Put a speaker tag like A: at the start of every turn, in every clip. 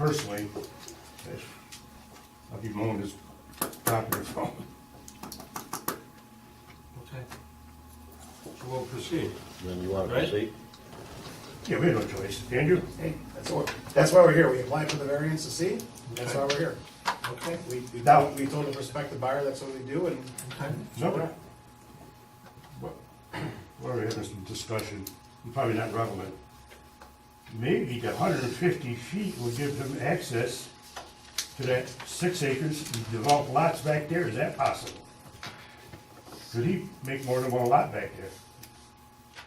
A: personally, that's- I'll be mowing this property phone.
B: Okay. So we'll proceed.
C: Then you want to
B: Right.
C: proceed?
A: Yeah, we had no choice, Andrew?
D: Hey, that's what, that's why we're here, we applied for the variance to see, that's why we're here.
B: Okay.
D: We, we told, we told the prospective buyer that's what we do, and
B: Okay.
A: No. Well, We're having some discussion, probably not relevant. Maybe the hundred and fifty feet will give them access to that six acres, and develop lots back there, is that possible? Could he make more than one lot back there?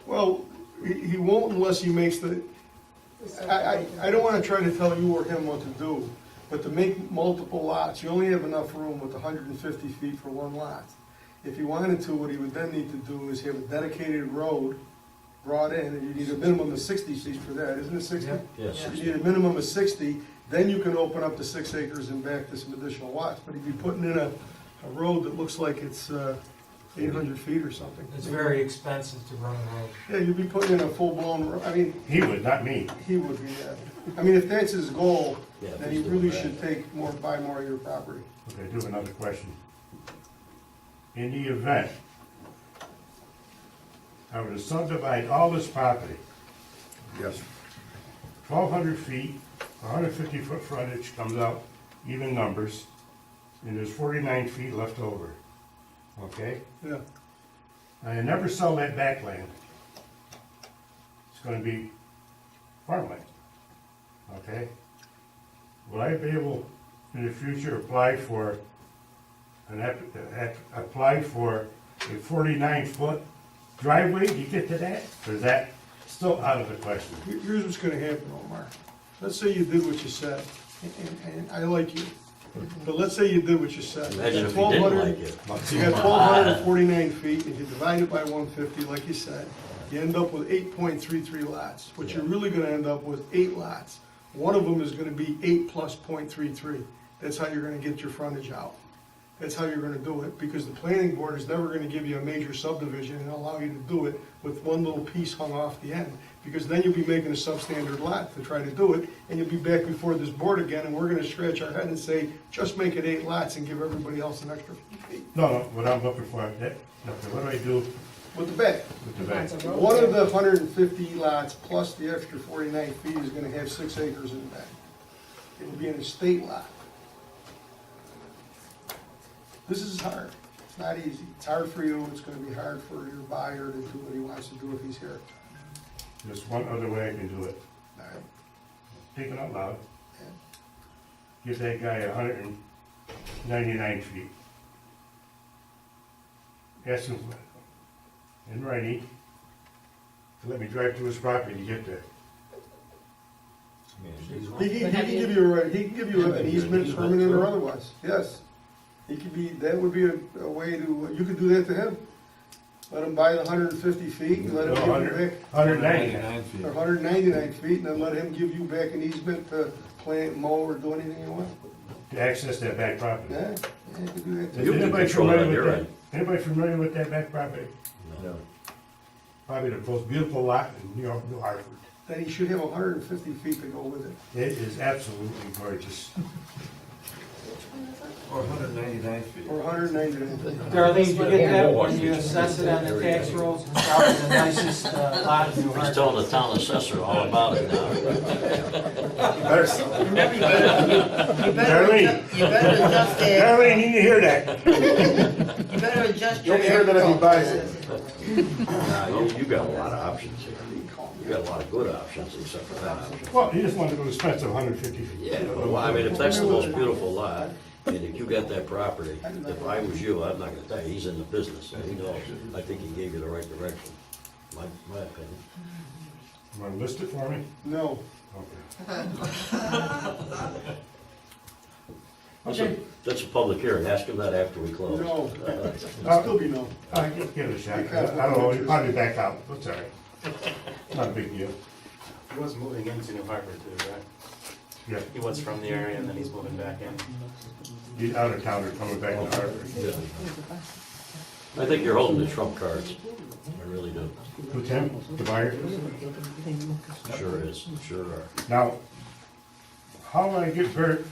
E: Well, he, he won't unless he makes the, I, I, I don't wanna try to tell you or him what to do, but to make multiple lots, you only have enough room with hundred and fifty feet for one lot. If he wanted to, what he would then need to do is have a dedicated road brought in, and you need a minimum of sixty feet for that, isn't it sixty?
B: Yeah.
C: Yes.
E: You need a minimum of sixty, then you can open up to six acres and back to some additional lots, but if you're putting in a, a road that looks like it's, uh, eight hundred feet or something.
B: It's very expensive to run a road.
E: Yeah, you'd be putting in a full-blown, I mean,
A: He would, not me.
E: he would be, uh, I mean, if that's his goal,
C: Yeah,
E: then
C: he's
E: he
C: doing
E: really
C: that.
E: should take more, buy more of your property.
A: Okay, I do have another question. In the event I were to subdivide all this property,
F: Yes,
A: twelve hundred feet, hundred fifty foot frontage comes out, even numbers, and there's forty-nine feet left over, okay?
E: Yeah,
A: I never sell that back land. It's gonna be farmland, okay? Will I be able, in the future, apply for an app, app- apply for a forty-nine foot driveway to get to that? Or is that still out of the question?
E: Here- here's what's gonna happen, Omar. Let's say you did what you said, and, and- and I like you, but let's say you did what you said.
C: Imagine if he didn't like
E: 1,200
C: it.
E: You got twelve hundred and forty-nine feet, and you divide it by one fifty, like you said, you end up with eight point three three lots. What you're really gonna end up with, eight lots. One of them is gonna be eight plus point three three. That's how you're gonna get your frontage out. That's how you're gonna do it, because the planning board is never gonna give you a major subdivision and allow you to do it with one little piece hung off the end. Because then you'll be making a substandard lot to try to do it, and you'll be back before this board again, and we're gonna scratch our head and say, just make it eight lots and give everybody else an extra few feet
A: No, no, what I'm looking for, that, okay, what do I do
E: with the back.
A: with the back?
E: One of the hundred and fifty lots plus the extra forty-nine feet is gonna have six acres in the back. It'll be an estate lot. This is hard. It's not easy. It's hard for you. It's gonna be hard for your buyer to do what he wants to do if he's here.
A: There's one other way I can do it,
E: All right?
A: thinking out loud.
E: Yeah.
A: Give that guy a hundred and ninety-nine feet. Ask him in writing to let me drive to his property to get there.
E: He can, he can give you, a right- he can give you an easement, permanent or otherwise, yes. He could be, that would be a, a way to, you could do that to him. Let him buy the hundred and fifty feet and let him give you back,
A: Hundred ninety-nine.
D: feet.
E: or hundred and ninety-nine feet, and then let him give you back an easement to plant, mow, or do anything you want.
A: To access that back property.
E: Yeah, yeah, you could do that
A: Is
E: too.
C: You can
A: anybody
C: control that
A: familiar with
C: on your
A: that?
C: end.
A: Anybody familiar with that back property?
C: No.
A: Probably the most beautiful lot in New York, New Hartford.
E: Then he should have hundred and fifty feet to go with it.
A: It is absolutely gorgeous.
B: Or 199 feet.
E: Or hundred and ninety-nine.
B: Darlene, did you get that when you assess it on the tax rolls? It's probably the nicest uh, lot in New
C: He's
B: Hartford.
C: telling the town assessor all about it now.
D: Better sell it.
G: Remember, you better- you better,
A: Darlene.
G: adjust- you better adjust that,
A: Darlene, you need to hear that.
G: you better adjust your.
D: You'll be here that if he
G: agriculture.
D: buys it.
C: Nah, you, you got a lot of options here. You got a lot of good options except for that option.
A: Well, he just wanted to go to Spencer, hundred fifty feet.
C: Yeah, well, I mean, if that's the most beautiful lot, and if you got that property, if I was you, I'm not gonna tell you, he's in the business, so he knows. I think he gave you the right direction, my, my opinion.
A: You wanna list it for me?
E: No,
A: Okay.
C: So, That's a public hearing, ask him that after we close.
E: no,
A: Uh,
E: it'll still be no.
A: I give give it a shot. I don't know, you probably back out, that's all right. Not a big deal.
H: He was moving into New Hartford too, right?
A: Yeah,
H: He was from the area and then he's moving back in.
A: you out of town or coming back to Hartford.
C: Yeah. I think you're holding the trump cards, I really do.
A: Who, Tim, the buyer?
C: Sure is, sure are.
A: Now, how will I get Bert